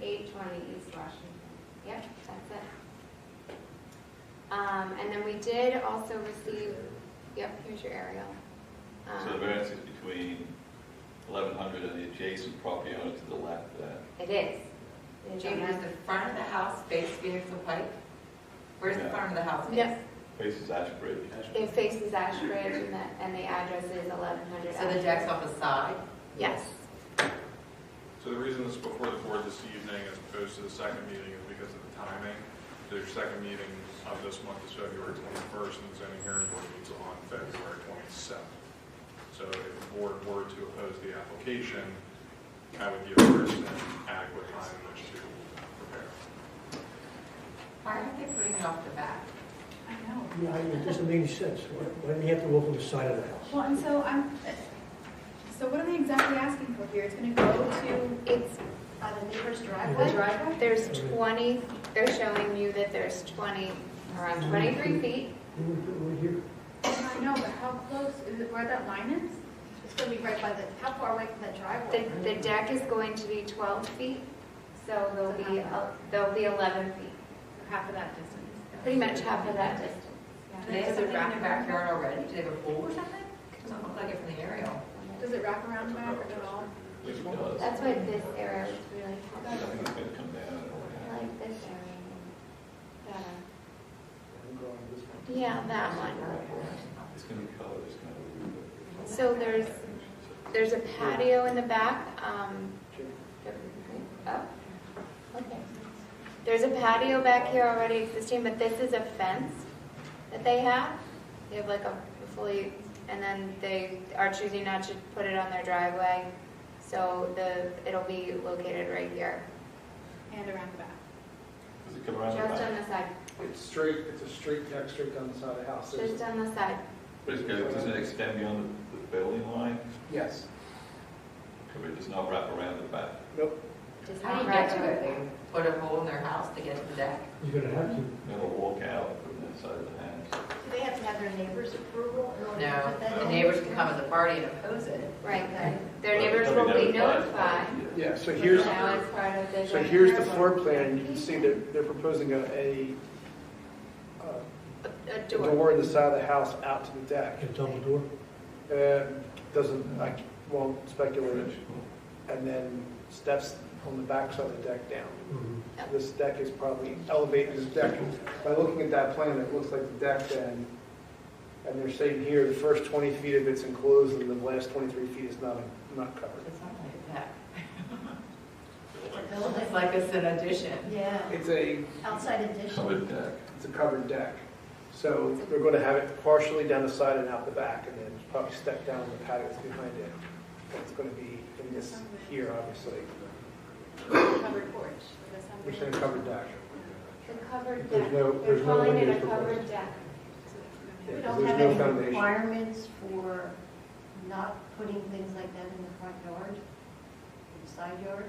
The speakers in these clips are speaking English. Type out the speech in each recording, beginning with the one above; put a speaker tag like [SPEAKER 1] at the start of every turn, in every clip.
[SPEAKER 1] twenty East Washington. Yep, that's it. Um, and then we did also receive, yep, here's your aerial. Um,
[SPEAKER 2] So the variance is between 1,100 and the adjacent property owner to the left of that.
[SPEAKER 1] It is. It is on
[SPEAKER 3] Jamie, is
[SPEAKER 1] that-
[SPEAKER 3] the front of the house face Phoenix and Pike? Where's the
[SPEAKER 2] Yeah.
[SPEAKER 3] front of the house
[SPEAKER 1] No.
[SPEAKER 3] face?
[SPEAKER 2] Faces Ashbridge.
[SPEAKER 1] It faces Ashbridge and the, and the address is eleven hundred.
[SPEAKER 3] So the deck's on the side?
[SPEAKER 1] Yes.
[SPEAKER 4] So the reason it's before the board this evening as opposed to the second meeting is because of the timing. Their second meeting of this month is February 21st, and the zoning hearing board meets on February 27th. So if the board were to oppose the application, I would give Kristen adequate time in which to prepare.
[SPEAKER 3] Why aren't they putting it off the back?
[SPEAKER 5] I know.
[SPEAKER 6] Yeah, it doesn't make any sense. Why why do they have to walk on the side of the house?
[SPEAKER 5] Well, and so I'm, so what are they exactly asking for here? It's gonna go to
[SPEAKER 1] It's,
[SPEAKER 5] uh, the neighbor's
[SPEAKER 1] The
[SPEAKER 5] driveway? driveway?
[SPEAKER 1] there's twenty, they're showing you that there's twenty, around twenty-three feet.
[SPEAKER 6] You would put one here,
[SPEAKER 5] I know, but how close, is it where that line is?
[SPEAKER 7] It's gonna be right by the, how far away from the
[SPEAKER 1] The,
[SPEAKER 7] driveway?
[SPEAKER 1] the deck is going to be twelve feet, so there'll be, el- there'll be eleven feet,
[SPEAKER 5] Half of that distance.
[SPEAKER 1] pretty much half of that distance.
[SPEAKER 3] Do they have something in their backyard already? Do they have a pool or something? Doesn't look like it from the aerial.
[SPEAKER 5] Does it wrap around back at all?
[SPEAKER 2] It does.
[SPEAKER 1] That's why this area was really
[SPEAKER 2] I
[SPEAKER 1] helpful.
[SPEAKER 2] think it's going to come down and all
[SPEAKER 1] I
[SPEAKER 2] that.
[SPEAKER 1] like this area. better. Yeah, that one.
[SPEAKER 2] It's going to be colored, it's going to
[SPEAKER 1] So there's, there's a patio in the back, um, oh, okay. There's a patio back here already existing, but this is a fence that they have. They have like a fully, and then they are choosing not to put it on their driveway. So the, it'll be located right here,
[SPEAKER 5] And around the back.
[SPEAKER 2] Does it come around
[SPEAKER 1] just
[SPEAKER 2] the
[SPEAKER 1] on
[SPEAKER 2] back?
[SPEAKER 1] the side,
[SPEAKER 8] It's straight, it's a straight deck, straight down the side of the house. There's-
[SPEAKER 1] just on the side.
[SPEAKER 2] But it's gonna- does it extend beyond the the building line?
[SPEAKER 8] Yes.
[SPEAKER 2] Could it does not wrap around the back?
[SPEAKER 8] Nope.
[SPEAKER 1] Does
[SPEAKER 3] How do you
[SPEAKER 1] not
[SPEAKER 3] get
[SPEAKER 1] wrap
[SPEAKER 3] to it?
[SPEAKER 1] around.
[SPEAKER 3] They Put a hole in their house to get to the deck?
[SPEAKER 6] you're gonna have to.
[SPEAKER 2] Then we'll walk out from that side of the house.
[SPEAKER 7] Do they have to have their neighbor's approval in order to
[SPEAKER 3] No,
[SPEAKER 7] put that in?
[SPEAKER 3] the neighbors can come as a party and oppose it.
[SPEAKER 1] Right,
[SPEAKER 2] But
[SPEAKER 1] their neighbors
[SPEAKER 2] it'll
[SPEAKER 1] will be
[SPEAKER 2] notified.
[SPEAKER 1] notified.
[SPEAKER 2] Yeah.
[SPEAKER 8] Yeah, so here's,
[SPEAKER 1] Now it's part of the
[SPEAKER 8] so
[SPEAKER 1] joint
[SPEAKER 8] here's the
[SPEAKER 1] hearing.
[SPEAKER 8] floor plan, you can see they're, they're proposing a, a uh,
[SPEAKER 1] A
[SPEAKER 8] a
[SPEAKER 1] door.
[SPEAKER 8] door in the side of the house out to the deck.
[SPEAKER 6] Can double door?
[SPEAKER 8] Uh, Doesn't, I won't speculate.
[SPEAKER 2] French.
[SPEAKER 8] And then steps on the back side of the deck down.
[SPEAKER 6] Mhm.
[SPEAKER 8] This deck is probably elevated, this deck, by looking at that plan, it looks like the deck then, and they're saying here, the first 20 feet of it's enclosed, and the last 23 feet is not, not covered.
[SPEAKER 3] It's not like a deck.
[SPEAKER 4] Building.
[SPEAKER 3] It's like it's an addition.
[SPEAKER 7] Yeah,
[SPEAKER 8] It's a,
[SPEAKER 7] outside addition.
[SPEAKER 2] Covered uh, deck.
[SPEAKER 8] it's a covered deck. So they're going to have it partially down the side and out the back, and then probably step down the patio that's behind it. It's going to be in this here, obviously.
[SPEAKER 5] Covered porch. or the
[SPEAKER 8] We're
[SPEAKER 5] something.
[SPEAKER 8] saying covered deck.
[SPEAKER 1] The covered
[SPEAKER 6] There's
[SPEAKER 1] deck,
[SPEAKER 6] no-
[SPEAKER 1] they're
[SPEAKER 6] there's no
[SPEAKER 1] calling it a
[SPEAKER 6] windows
[SPEAKER 1] covered
[SPEAKER 6] proposed.
[SPEAKER 1] deck.
[SPEAKER 8] Yeah, 'cause
[SPEAKER 7] We don't have
[SPEAKER 8] there's no
[SPEAKER 7] any
[SPEAKER 8] foundation.
[SPEAKER 7] requirements for not putting things like that in the front yard, in the side yard.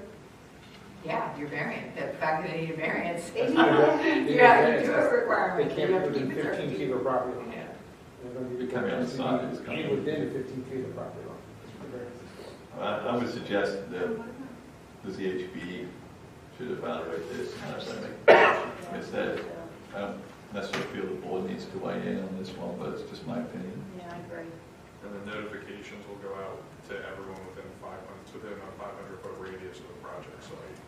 [SPEAKER 3] Yeah, your variant, the fact that they need a variance.
[SPEAKER 1] They need
[SPEAKER 3] Yeah, you do have a requirement.
[SPEAKER 8] They can't
[SPEAKER 3] You have to
[SPEAKER 8] be
[SPEAKER 3] keep it
[SPEAKER 8] within 15
[SPEAKER 3] certain.
[SPEAKER 8] feet of property line.
[SPEAKER 3] Yeah.
[SPEAKER 8] They're going to be
[SPEAKER 2] It can be on the side, it's gotta be-
[SPEAKER 8] within 15 feet of property line. That's what the variance is for.
[SPEAKER 2] I, I would suggest that the ZHB should evaluate this, and that's what I make, it's that, um, I don't necessarily feel the board needs to weigh in on this one, but it's just my opinion.
[SPEAKER 7] Yeah, I agree.
[SPEAKER 4] And the notifications will go out to everyone within 500, within a 500-foot radius of the project site.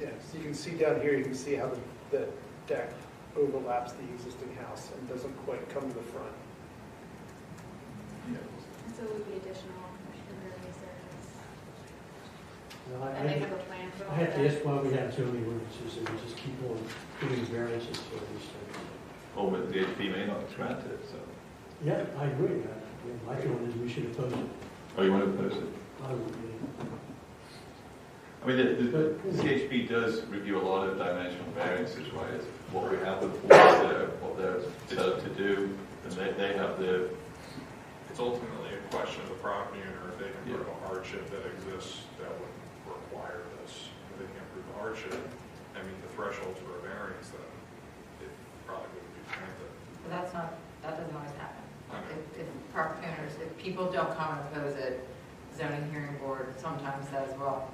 [SPEAKER 8] Yeah, so you can see down here, you can see how the, the deck overlaps the existing house and doesn't quite come to the front.
[SPEAKER 2] you know.
[SPEAKER 5] And So it would be additional in various areas.
[SPEAKER 6] Now, I-
[SPEAKER 5] And they have
[SPEAKER 6] I
[SPEAKER 5] a plan for all
[SPEAKER 6] I
[SPEAKER 5] of
[SPEAKER 6] have
[SPEAKER 5] that.
[SPEAKER 6] to ask why we have so many ordinances and we just keep on giving variances to all these things.
[SPEAKER 2] Or whether the ZHB may not grant it, so,
[SPEAKER 6] Yeah, I agree. I- I mean, My feeling is we should oppose it.
[SPEAKER 2] or you want to oppose it?
[SPEAKER 6] I would, yeah.
[SPEAKER 2] I mean, the, the CHP does review a lot of dimensional variances, right? It's what we have with what they're, what they're set up to do, and they, they have their,
[SPEAKER 4] It's ultimately a question of the property owner if they can prove a hardship that exists that would require this. If they can't prove a hardship, I mean, the threshold for a variance, then it probably wouldn't be granted.
[SPEAKER 3] But that's not, that doesn't always happen. Like, If, if property owners, if people don't come and oppose it, zoning hearing board sometimes says, well,